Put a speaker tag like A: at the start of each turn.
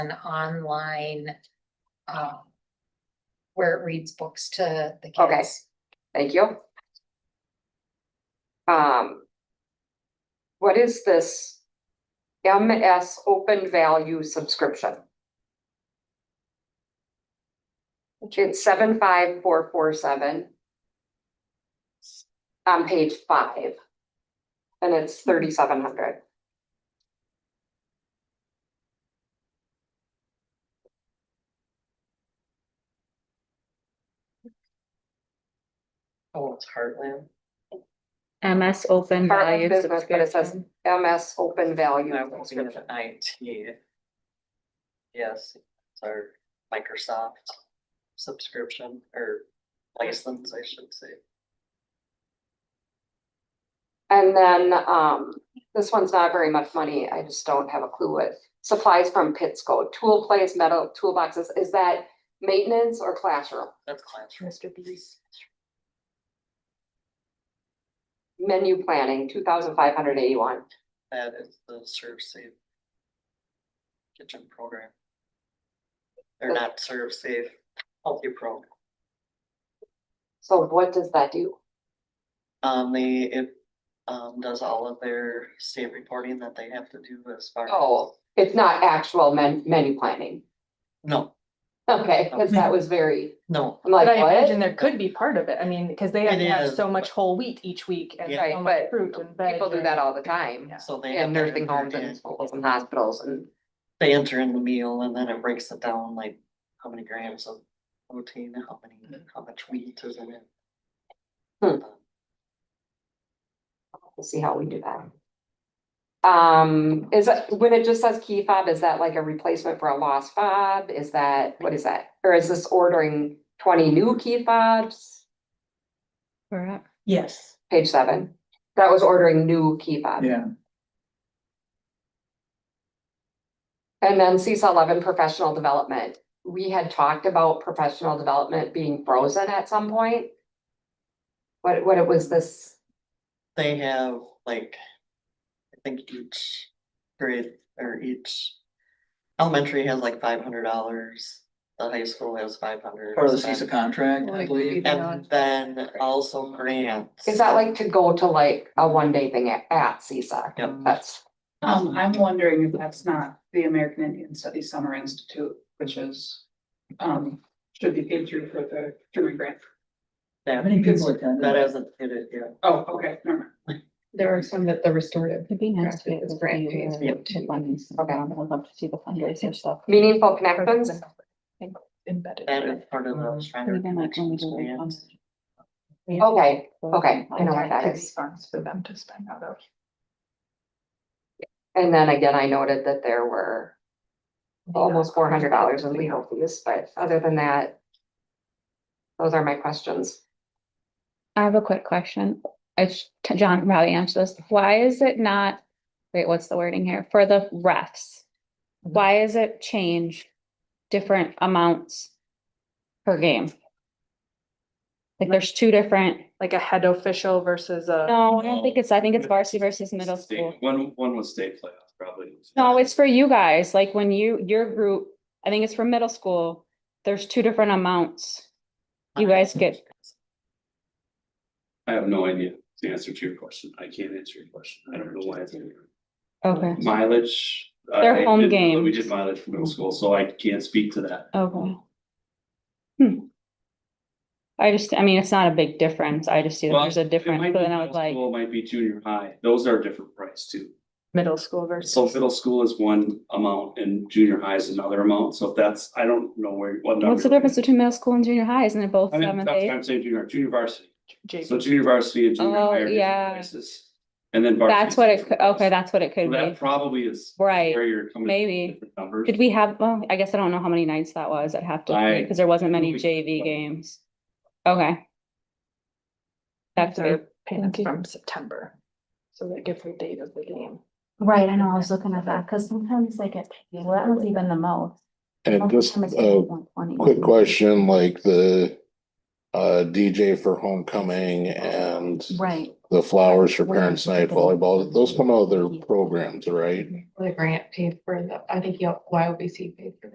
A: an online, um, where it reads books to the
B: Okay.
A: kids.
B: Thank you. Um. What is this? MS Open Value Subscription? It's seven five four four seven. On page five. And it's thirty-seven hundred.
C: Oh, it's Heartland.
D: MS Open
B: Part of
D: Value
B: business, but it says-
D: Subscription.
B: MS Open Value
C: I was thinking
B: Subscription.
C: of IT. Yes, it's our Microsoft subscription or license, I should say.
B: And then, um, this one's not very much money. I just don't have a clue what supplies from Pittsco, tool place, metal toolboxes. Is that maintenance or classroom?
C: That's classroom.
D: Mr. Beast.
B: Menu planning, two thousand five hundred eighty-one.
C: That is the serve safe. Kitchen program. They're not serve safe, healthy pro.
B: So what does that do?
C: Um, they, it, um, does all of their state reporting that they have to do as far. as-
B: Oh, it's not actual men- menu planning.
C: No,
B: Okay, because that was very,
C: no,
B: I'm
E: Oh. But
B: like,
E: I imagine
B: what?
E: there could be part of it, I mean, because they have
C: It
E: to have
C: is,
E: so
C: but-
E: much whole wheat each week and
C: Yeah.
E: so
B: Right,
E: much
B: but
E: fruit and veg.
B: People do
E: and-
B: that all the time.
C: so they. have
B: In
C: to
B: nursing
C: enter
B: homes
C: in-
B: and schools and hospitals and,
C: They enter in the meal and then it breaks it down like how many grams of protein, how
D: Mm-hmm.
C: many, how much wheat is in it.
B: Hmm. we'll see how we do that. Um, is, it- when it just says key fob, is that like a replacement for a lost fob? Is that, what is that? Or is this ordering twenty new key fobs?
D: Correct.
F: Yes,
B: Page seven. That was ordering new key fobs.
F: yeah,
B: And then CISA eleven, professional development. We had talked about professional development being frozen at some point. What, what it was this,
C: They have like, I think each grade or each elementary has like five hundred dollars. The high school has five hundred.
F: part of the CISA contract, I
D: Like,
F: believe.
D: you-
C: And then also grants.
B: is that like to go to like a one day thing at, at CISA?
C: Yep.
D: uh,
B: That's,
G: Um, I'm wondering if that's not the American Indian Studies Summer Institute, which is, um, should be paid through for the German grant.
F: How
C: That
F: many people attended?
C: that hasn't hit it yet.
G: Oh, okay, never mind.
H: There are some that the restorative.
D: It'd be nice to be
H: Grant-
D: able to
H: it's grant
D: do
H: pays
D: the-
C: yep.
D: the funds.
B: Okay.
D: Um, I'd love to see the fundraiser stuff.
B: meaningful connections?
H: Embedded.
C: That is part of the Shriner
D: Even like when we do the
C: grants.
D: funds.
B: Okay, okay, I know what that
H: Grant
B: is.
H: Funds for them to spend out of.
B: And then again, I noted that there were almost four hundred dollars in legal fees, but other than that, those are my questions.
D: I have a quick question. It's, to John probably answered this. Why is it not, wait, what's the wording here? For the refs?
E: Mm-hmm.
D: Why is it change different amounts per game? Like there's two different,
E: Like a head official versus a.
D: no, I don't think it's, I think it's varsity versus middle
I: State-
D: school.
I: One, one was state playoffs, probably.
D: No, it's for you guys, like when you, your group, I think it's for middle school, there's two different amounts. um, You guys get,
I: I have no idea the answer to your question. I can't answer your question. I don't know why. it's in there.
D: okay,
I: Mileage. I-
D: Their
I: I
D: home
I: didn't-
D: games.
I: We did mileage for middle school, so I can't speak to that.
D: okay. Hmm. I just, I mean, it's not a big difference. I just see that
I: Well,
D: there's a difference,
I: It might
D: but
I: be
D: then I was
I: middle
D: like,
I: school, it Might be junior high. Those are a different price too.
E: Middle school versus.
I: So middle school is one amount and junior high is another amount. So if that's, I don't know where, what number.
D: what's the
I: you're looking
D: difference between middle school and junior high? Isn't it both
I: at. I mean,
D: seventh,
I: that's what
D: eighth?
I: I'm saying junior, junior varsity.
E: JV.
I: So junior varsity and junior
D: Oh,
I: high are
D: yeah.
I: different prices. And then. varsity
D: That's
I: is
D: what it,
I: different
D: could- okay,
I: price.
D: that's what it
I: So
D: could
I: That
D: be.
I: probably is.
D: Right,
I: Where you're coming.
D: maybe.
I: different Numbers.
D: Did we have, well, I guess I don't know how many nights that was. I'd have to,
I: I-
D: because there wasn't many
I: we-
D: JV games. Okay. That's
H: These are
D: a
H: Payments
D: Thank you.
H: from September. So they give the date of the game.
J: Right, I know, I was looking at that, cause sometimes they get paid, well, that one's even the most.
K: And
J: Most
K: just
J: of the time it's
K: a
J: like 120.
K: quick question, like the
F: uh, DJ for homecoming and
J: Right.
F: the flowers for
J: Where
F: parents'
J: is it
F: night
J: going?
F: volleyball, those come out of their programs, right?
H: The grant paid for the, I think, yeah, YOBC paid for